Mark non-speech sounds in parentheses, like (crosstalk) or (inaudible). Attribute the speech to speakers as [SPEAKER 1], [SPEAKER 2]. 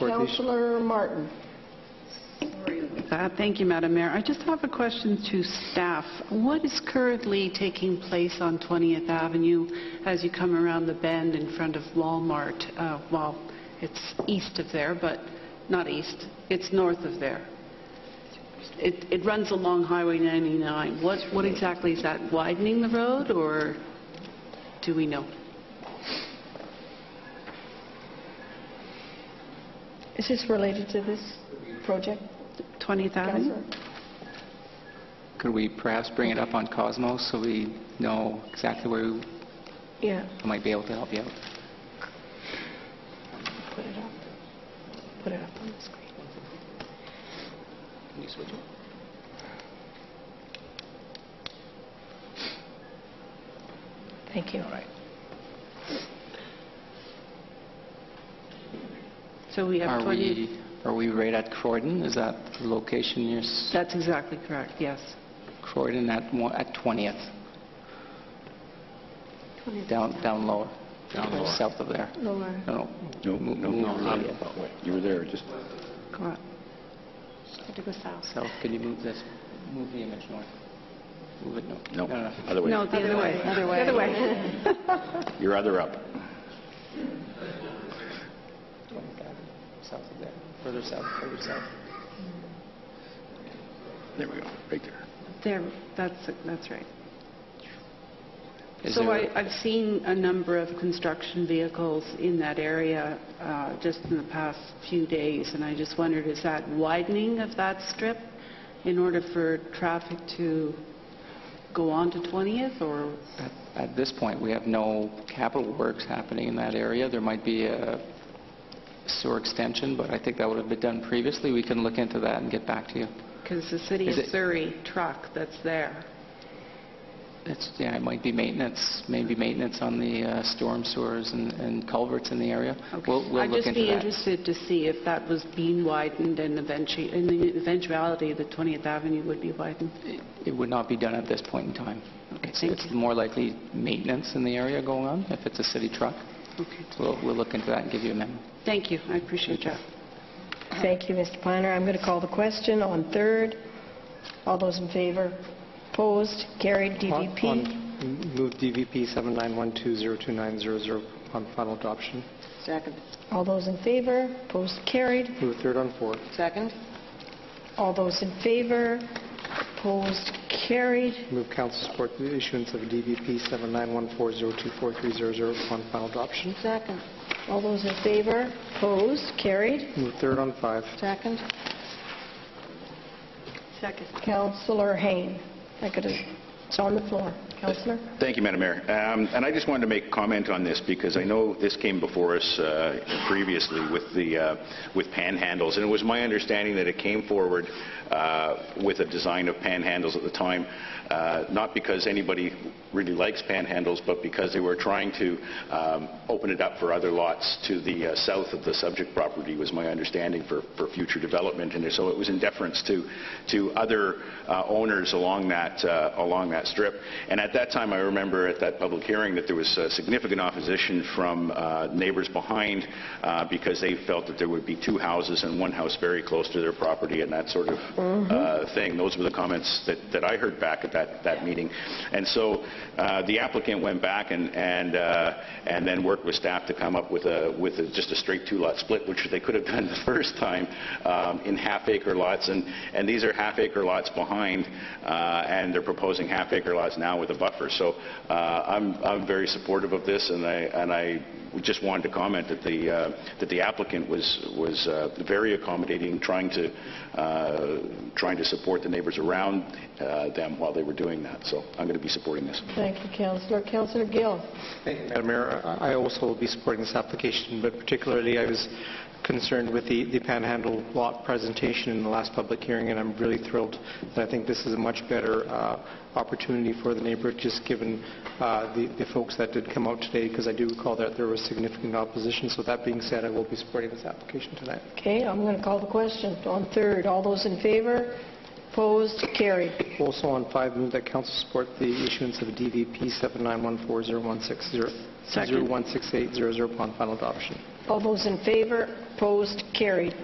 [SPEAKER 1] Councillor Martin.
[SPEAKER 2] Uh, Thank you, Madam Mayor. I just have a question to staff. What is currently taking place on 20th Avenue as you come around the bend in front of Walmart? Uh, Well, it's east of there, but not east, it's north of there. It it runs along Highway 99. What what exactly is that, widening the road, or do we know?
[SPEAKER 1] Is this related to this project,
[SPEAKER 2] 20th
[SPEAKER 1] Uh-huh.
[SPEAKER 2] Avenue?
[SPEAKER 1] Councillor?
[SPEAKER 3] Could we perhaps bring it up on Cosmo so we know exactly where we
[SPEAKER 1] Yeah,
[SPEAKER 3] might be able to help you out?
[SPEAKER 1] put it up. Put it up on the screen.
[SPEAKER 3] Can you switch it?
[SPEAKER 1] Thank you.
[SPEAKER 3] All right.
[SPEAKER 2] So we have
[SPEAKER 3] Are
[SPEAKER 2] 20...
[SPEAKER 3] we, are we right at Croydon? Is that the location near s-
[SPEAKER 2] That's exactly correct, yes.
[SPEAKER 3] Croydon at one- at 20th? Down, down lower, down
[SPEAKER 4] lower.
[SPEAKER 3] south of there?
[SPEAKER 1] Laura.
[SPEAKER 3] No,
[SPEAKER 4] No,
[SPEAKER 3] no.
[SPEAKER 4] no,
[SPEAKER 3] Mo-
[SPEAKER 4] you
[SPEAKER 3] move
[SPEAKER 4] were
[SPEAKER 3] the,
[SPEAKER 4] there.
[SPEAKER 3] uh,
[SPEAKER 4] You were there, just,
[SPEAKER 2] Correct.
[SPEAKER 1] Had to go south.
[SPEAKER 3] South, can you move this, move the image north? Move it north.
[SPEAKER 4] no,
[SPEAKER 3] No, no.
[SPEAKER 4] other
[SPEAKER 2] No,
[SPEAKER 4] way.
[SPEAKER 2] the other way. Other way. Other way.
[SPEAKER 4] You're other up.
[SPEAKER 3] South of there, further south, further south.
[SPEAKER 4] There we go, right there.
[SPEAKER 2] There, that's, that's right.
[SPEAKER 3] Is
[SPEAKER 2] So
[SPEAKER 3] there-
[SPEAKER 2] I, I've seen a number of construction vehicles in that area uh, just in the past few days, and I just wondered, is that widening of that strip in order for traffic to go on to 20th, or,
[SPEAKER 3] At- At this point, we have no capital works happening in that area. There might be a sewer extension, but I think that would have been done previously. We can look into that and get back to you.
[SPEAKER 2] because the city
[SPEAKER 3] Is
[SPEAKER 2] of
[SPEAKER 3] it-
[SPEAKER 2] Surrey truck that's there.
[SPEAKER 3] It's, yeah, it might be maintenance, maybe maintenance on the uh, storm sewers and- and culverts in the area. We'll we'll
[SPEAKER 2] I'd
[SPEAKER 3] look
[SPEAKER 2] just
[SPEAKER 3] into
[SPEAKER 2] be
[SPEAKER 3] that.
[SPEAKER 2] interested to see if that was being widened and eventually, in the eventuality that 20th Avenue would be widened.
[SPEAKER 3] It would not be done at this point in time. It's-
[SPEAKER 2] thank
[SPEAKER 3] It's
[SPEAKER 2] you.
[SPEAKER 3] more likely maintenance in the area going on, if it's a city truck.
[SPEAKER 2] Okay.
[SPEAKER 3] We'll we'll look into that and give you a memo.
[SPEAKER 2] Thank you, I appreciate that.
[SPEAKER 1] Uh-huh. Thank you, Mr. Planner. I'm going to call the question on third. All those in favor? Opposed? Carried.
[SPEAKER 5] On-
[SPEAKER 1] DVP?
[SPEAKER 5] on- Move DVP 79120290 on final adoption.
[SPEAKER 6] Second.
[SPEAKER 1] All those in favor? Opposed? Carried.
[SPEAKER 5] Move third on fourth.
[SPEAKER 6] Second?
[SPEAKER 1] All those in favor? Opposed? Carried.
[SPEAKER 5] Move council support the issuance of DVP 7914024300 on final adoption.
[SPEAKER 6] Second.
[SPEAKER 1] All those in favor? Opposed? Carried.
[SPEAKER 5] Move third on five.
[SPEAKER 6] Second?
[SPEAKER 2] Second.
[SPEAKER 1] Councillor Hain. I could have, it's on the floor. Councillor?
[SPEAKER 4] Thank you, Madam Mayor. Um, And I just wanted to make comment on this, because I know this came before us uh, previously with the, uh, with panhandles, and it was my understanding that it came forward uh, with a design of panhandles at the time, uh, not because anybody really likes panhandles, but because they were trying to um, open it up for other lots to the uh, south of the subject property, was my understanding, for, for future development. And so it was in deference to, to other uh, owners along that, uh, along that strip. And at that time, I remember at that public hearing that there was uh, significant opposition from uh, neighbors behind uh, because they felt that there would be two houses and one house very close to their property and that sort of uh, thing. Those were the comments that, that I heard back at that, that meeting. And so uh, the applicant went back and, and, uh, and then worked with staff to come up with a, with a, just a straight two-lot split, which they could have done (laughs) the first time um, in half-acre lots. And, and these are half-acre lots behind, uh, and they're proposing half-acre lots now with a buffer. So uh, I'm, I'm very supportive of this, and I, and I we just wanted to comment that the, uh, that the applicant was, was uh, very accommodating, trying to, uh, trying to support the neighbors around uh, them while they were doing that. So I'm going to be supporting this.
[SPEAKER 1] Thank you, Councillor. Councillor Gill?
[SPEAKER 5] Madam Mayor, I I also will be supporting this application, but particularly I was concerned with the the Panhandle lot presentation in the last public hearing, and I'm really thrilled that I think this is a much better uh, opportunity for the neighborhood, just given uh, the the folks that did come out today, because I do recall that there was significant opposition. So that being said, I will be supporting this application tonight.
[SPEAKER 1] Okay, I'm going to call the question on third. All those in favor? Opposed? Carried.
[SPEAKER 5] Also on five, move that council support the issuance of DVP 79140160
[SPEAKER 2] Second.
[SPEAKER 5] 016800 upon final adoption.
[SPEAKER 1] All those in favor, opposed, carried.